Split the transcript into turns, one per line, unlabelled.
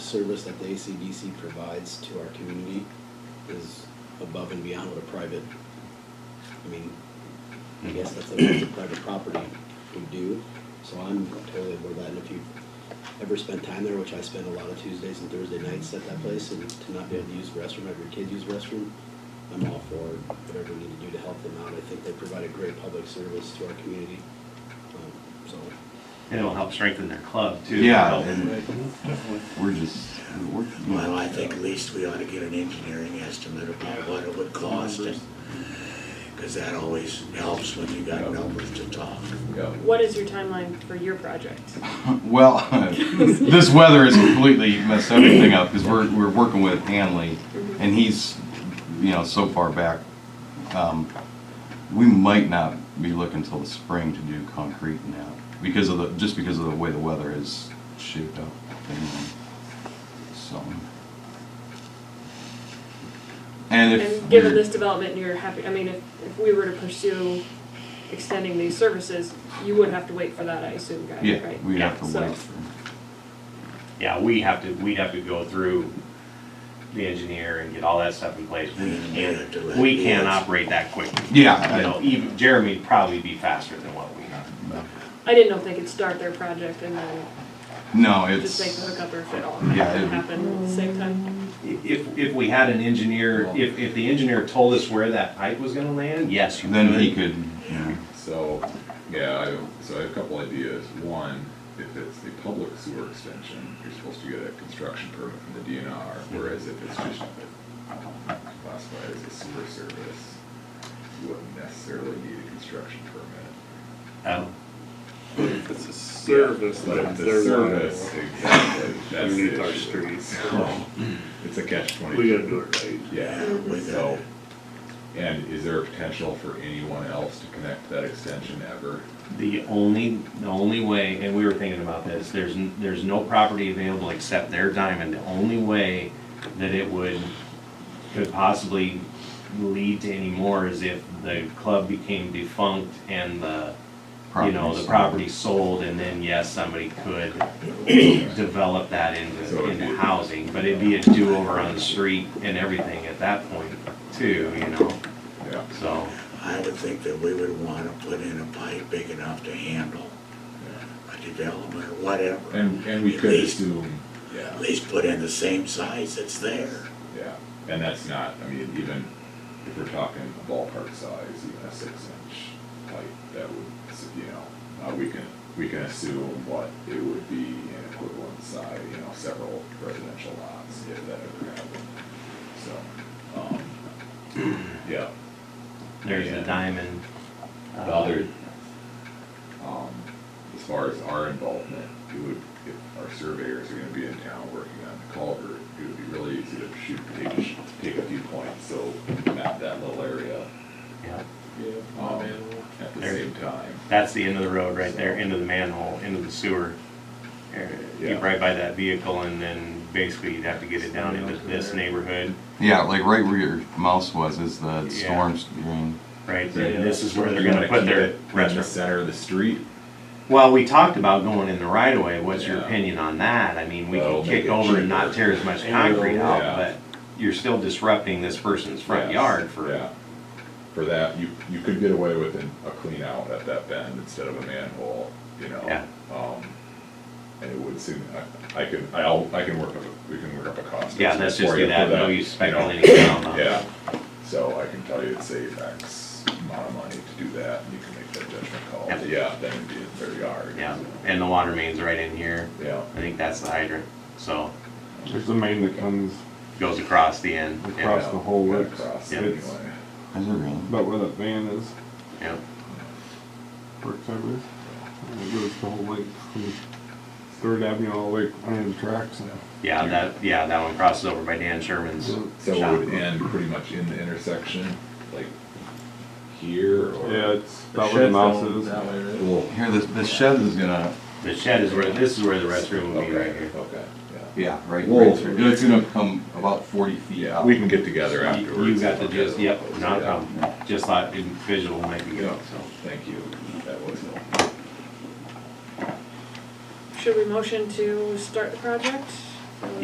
service that the ACDC provides to our community is above and beyond what a private, I mean, I guess that's a, that's a private property would do. So I'm totally aboard that, and if you've ever spent time there, which I spend a lot of Tuesdays and Thursday nights at that place, and to not be able to use the restroom, have your kids use the restroom, I'm all for whatever we need to do to help them out. I think they provide a great public service to our community, um, so.
And it'll help strengthen their club too.
Yeah,
Help.
and we're just, we're.
Well, I think at least we ought to get an engineering estimate about what it would cost, because that always helps when you got numbers to talk.
What is your timeline for your project?
Well, this weather has completely messed everything up because we're, we're working with Hanley
Mm-hmm.
and he's, you know, so far back. Um, we might not be looking till the spring to do concrete now because of the, just because of the way the weather is shaped up. and, So. And if.
And given
you're-
this development, you're happy, I mean, if, if we were to pursue extending these services, you would have to wait for that, I assume, guys,
Yeah,
right?
we
Yeah,
have to
so-
wait for,
Yeah, we have to, we'd have to go through the engineer and get all that stuff in place. We can't, we can't operate that quickly.
Yeah.
You know, even Jeremy'd probably be faster than what we are.
I didn't know if they could start their project and then
no, it's.
just make the hookup or if it all
Yeah, it'd be-
happened at the same time.
If, if we had an engineer, if, if the engineer told us where that pipe was gonna land, yes, you could.
Then he could, you know.
So, yeah, I, so I have a couple ideas. One, if it's the public sewer extension, you're supposed to get a construction permit from the DNR, whereas if it's just classified as a sewer service, you wouldn't necessarily need a construction permit.
Oh,
If it's a service,
But
then
if the
they're
service,
liable.
exactly, that's
Underneath
the
our
issue.
streets.
So, It's a catch twenty-two.
We gotta do it right.
Yeah,
Mhm.
so, and is there a potential for anyone else to connect that extension ever?
The only, the only way, and we were thinking about this, there's, n- there's no property available except their diamond. The only way that it would, could possibly lead to any more is if the club became defunct and the, you know, the property sold, and then yes, somebody could develop that into,
So it'd
into
be-
housing. But it'd be a do-over on the street and everything at that point too, you know,
Yeah,
so.
I would think that we would want to put in a pipe big enough to handle
yeah.
a development or whatever.
And, and we
At
could
least-
assume, yeah.
At least put in the same size that's there.
Yeah, and that's not, I mean, even if we're talking ballpark size, even a six inch pipe, that would, you know, uh, we can, we can assume what it would be in equivalent size, you know, several residential lots, if that ever happened. So, um, yeah.
There's the
And-
diamond. uh,
well, there- um, as far as our involvement, it would, if our surveyors are gonna be in town working on the culvert, it would be really easy to shoot, take, a sh- take a few points, so map that little area,
uh, Yeah.
um, at the
There.
same time.
That's the end of the road right there, into the manhole, into the sewer. area.
Yeah.
Right by that vehicle and then basically you'd have to get it down into this neighborhood,
Yeah, like right where your mouse was is the
Yeah.
storm drain.
right? And this is where they're gonna put their
In the
restaurant.
center of the street.
Well, we talked about going in the right of way. What's your
Yeah.
opinion on that? I mean, we
That'll
could
make
kick
it
over and not
cheaper.
tear as much concrete out,
Yeah.
but you're still disrupting this person's front
Yes,
yard for,
Yeah, for that, you, you could get away with an- a clean out at that bend instead of a manhole, you know?
Yeah.
Um, and it would soon, I, I could, I'll, I can work up, a- we can work up a cost.
yeah, let's
estimate
just
for
do
you
that.
for
No
you
use
know?
speculating around on
Yeah,
it.
so I can tell you it saves X amount of money to do that, and you can make that judgment call,
Yeah.
But yeah, then it'd be in their yard.
Yeah, and the water main's right in here.
Yeah,
I think that's the hydrant, so
There's the main that comes
goes across the end. Yeah.
across the whole
cut
works.
across
Yeah.
anyway,
It's
Is it really?
about where that van is,
Yeah.
works over there. And it goes the whole length from Third Avenue all the way under the tracks.
Yeah, that, yeah, that one crosses over by Dan Sherman's
so it
shop.
would end pretty much in the intersection, like here or.
Yeah, it's about where the mouse is.
Cool.
Here, this, this shed is gonna.
The shed is where, this is where the restroom would be right
Okay,
here.
okay, yeah.
Yeah, right.
Whoa.
right through. It's gonna come about forty feet
Yeah,
out.
we can get together
You
afterwards.
you got the
Okay.
gist, yep, not a
Yeah.
problem. Just thought in visual might be good,
Yeah,
so.
thank you, that was helpful.
Should we motion to start the project?